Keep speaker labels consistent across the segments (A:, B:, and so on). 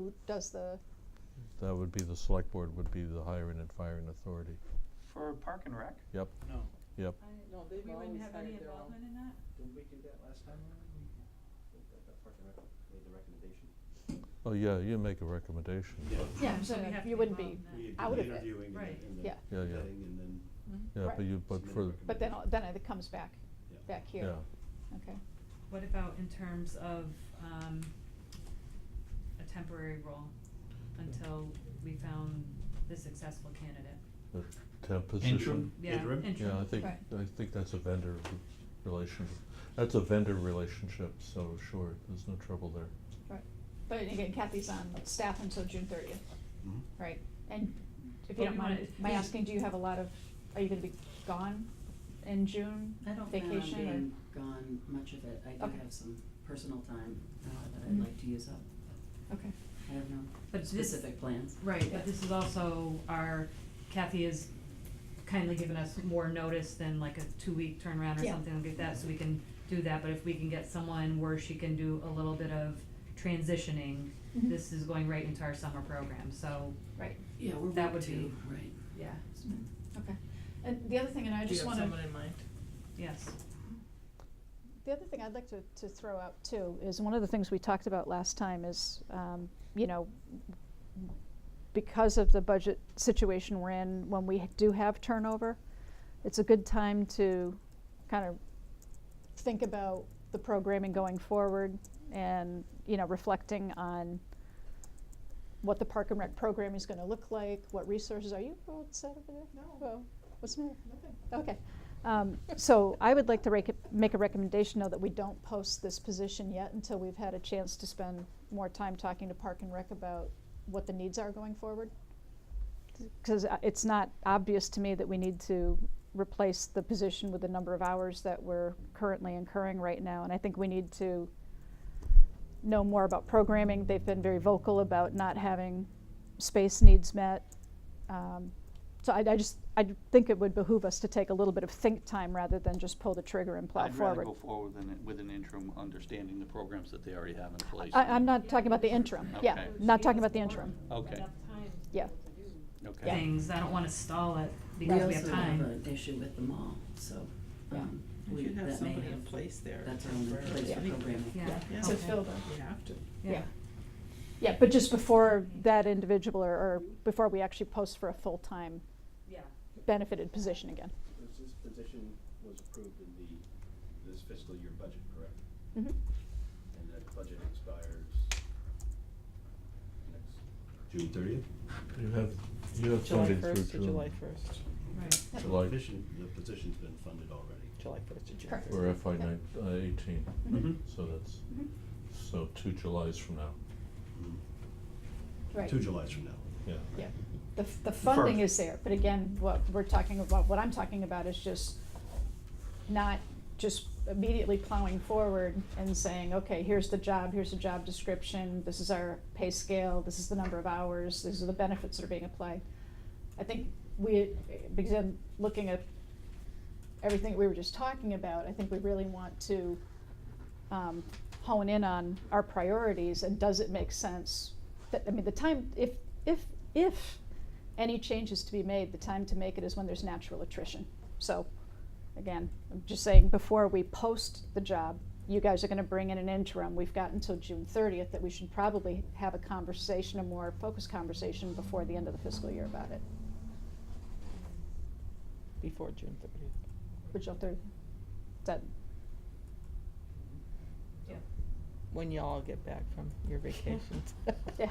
A: who does the,
B: That would be, the select board would be the hiring and firing authority.
C: For Park and Rec?
B: Yep,
C: No.
B: yep.
D: I,
E: No,
D: we
E: they've
D: wouldn't
E: always
D: have any
E: hired their own.
D: involvement in that?
F: Didn't we do that last time already? That that Park and Rec made the recommendation.
B: Oh, yeah, you make a recommendation.
A: yeah,
D: So we
A: so
D: have to
A: you wouldn't be,
D: involve them.
F: We had
A: out
F: done
A: of it,
F: interviewing and
D: right.
F: then, and then
A: Yeah.
B: Yeah, yeah.
F: vetting and then,
D: Mm-hmm.
B: Yeah, but
A: Right.
B: you, but
F: Submit a
B: for,
A: but then,
F: recommendation.
A: then it comes back,
F: yeah.
A: back here,
B: yeah.
A: okay.
D: What about in terms of, um, a temporary role until we found the successful candidate?
B: The temp position.
D: Yeah,
F: Interim?
D: interim.
B: Yeah, I think,
A: Right.
B: I think that's a vendor relation, that's a vendor relationship, so sure, there's no trouble there.
A: Right, but again, Kathy's on staff until June thirtieth,
F: Mhm.
A: right? And if you
D: Well,
A: don't
D: we
A: mind
D: wanna-
A: my asking, do you have a lot of, are you gonna be gone in June,
G: I don't plan on
A: vacation
G: being gone much of it, I do
A: Okay.
G: have some personal time, uh, that
A: Mhm.
G: I'd like to use up,
A: or? Okay,
G: I have no
D: Mm-hmm. But this-
G: specific plans.
D: Right,
G: Yeah.
D: but this is also our, Kathy has kindly given us more notice than like a two-week turnaround or
A: Yeah.
D: something like that, so we can do that, but if we can get someone where she can do a little bit of transitioning,
A: Mhm.
D: this is going right into our summer program, so,
A: right,
G: Yeah, we're
D: That
G: week
D: would be-
G: two, right.
D: yeah,
A: okay. And the other thing, and I just wanna.
E: in mind?
D: yes.
A: The other thing I'd like to, to throw out too is one of the things we talked about last time is, um, you know, because of the budget situation we're in, when we do have turnover, it's a good time to kind of think about the programming going forward and, you know, reflecting on what the Park and Rec program is gonna look like, what resources, are you all set over there?
E: No.
A: Well, What's the matter? Okay. Um, So I would like to rec- make a recommendation, though, that we don't post this position yet until we've had a chance to spend more time talking to Park and Rec about what the needs are going forward. Because it's not obvious to me that we need to replace the position with the number of hours that we're currently incurring right now. And I think we need to know more about programming. They've been very vocal about not having space needs met. Um, So I, I just, I think it would behoove us to take a little bit of think time rather than just pull the trigger and plow
C: I'd rather
A: forward.
C: go forward with an, with an interim, understanding the programs that they already have in place.
A: I, I'm not talking about the interim, yeah,
C: Okay.
A: not talking about the interim,
C: Okay.
A: yeah.
C: Okay.
D: Things, I don't wanna stall it
G: We
D: because we have
G: also have
D: time,
G: an issue with the mall, so, um,
E: We
G: we,
E: should have
G: that may
E: somebody in
G: have,
E: place there.
G: that's our only
E: temporarily.
G: place for programming.
D: yeah,
E: Yeah.
A: To
D: okay.
A: fill the,
E: We have to.
D: yeah,
A: yeah, but just before that individual or, or before we actually post for a full-time
D: yeah.
A: benefited position again.
F: This this position was approved in the, this fiscal year budget, correct?
A: Mhm.
F: And that budget expires next. June thirtieth?
B: You have, you have
E: July
B: funding through
E: first to
B: June.
E: July first.
D: Right,
B: July-
F: The position, the position's been funded already.
E: July first to June
A: Correct.
E: first.
B: Or FY nine, uh, eighteen,
F: Mm-hmm.
C: Mhm.
B: so that's,
A: Mhm.
B: so two Julys from now,
F: Mhm.
A: Right,
F: Two Julys from now.
B: yeah.
A: yeah, the, f- the funding
C: First.
A: is there, but again, what we're talking about, what I'm talking about is just not just immediately plowing forward and saying, okay, here's the job, here's the job description, this is our pay scale, this is the number of hours, these are the benefits that are being applied. I think we, because I'm looking at everything we were just talking about, I think we really want to um, hone in on our priorities and does it make sense? That, I mean, the time, if, if, if any changes to be made, the time to make it is when there's natural attrition. So, again, I'm just saying, before we post the job, you guys are gonna bring in an interim. We've got until June thirtieth that we should probably have a conversation, a more focused conversation before the end of the fiscal year about it.
E: Before June thirtieth.
A: Which June thirtieth, is that,
D: yeah.
E: When y'all get back from your vacations.
A: Yeah.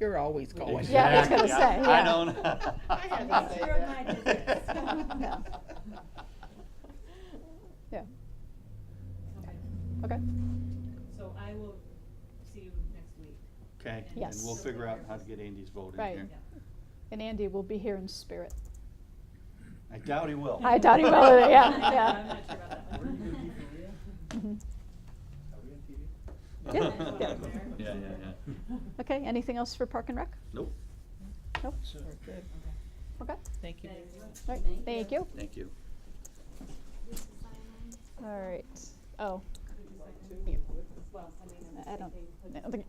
E: You're always going.
A: Yeah, I was gonna
C: Exactly.
A: say,
C: I
A: yeah.
C: don't.
A: I had to say Zero
D: my business.
A: No. yeah,
D: Okay.
A: okay,
D: So I will see you next week.
C: Okay, and
A: Yes.
C: we'll figure out how to get Andy's vote in
A: Right.
C: here.
A: and Andy will be here in spirit.
C: I doubt he will.
A: I doubt he will, yeah, yeah.
D: I'm not sure about that one.
F: Where do you go, Maria?
A: Mhm.
F: Are we on
A: Yeah.
F: TV?
C: Yeah,
A: Yeah.
C: yeah, yeah.
A: Okay, anything else for Park and Rec?
C: Nope,
A: Nope,
E: We're good.
A: okay,
E: Thank you.
A: all right, thank you.
C: thank you.
A: All right, oh. I don't, I don't think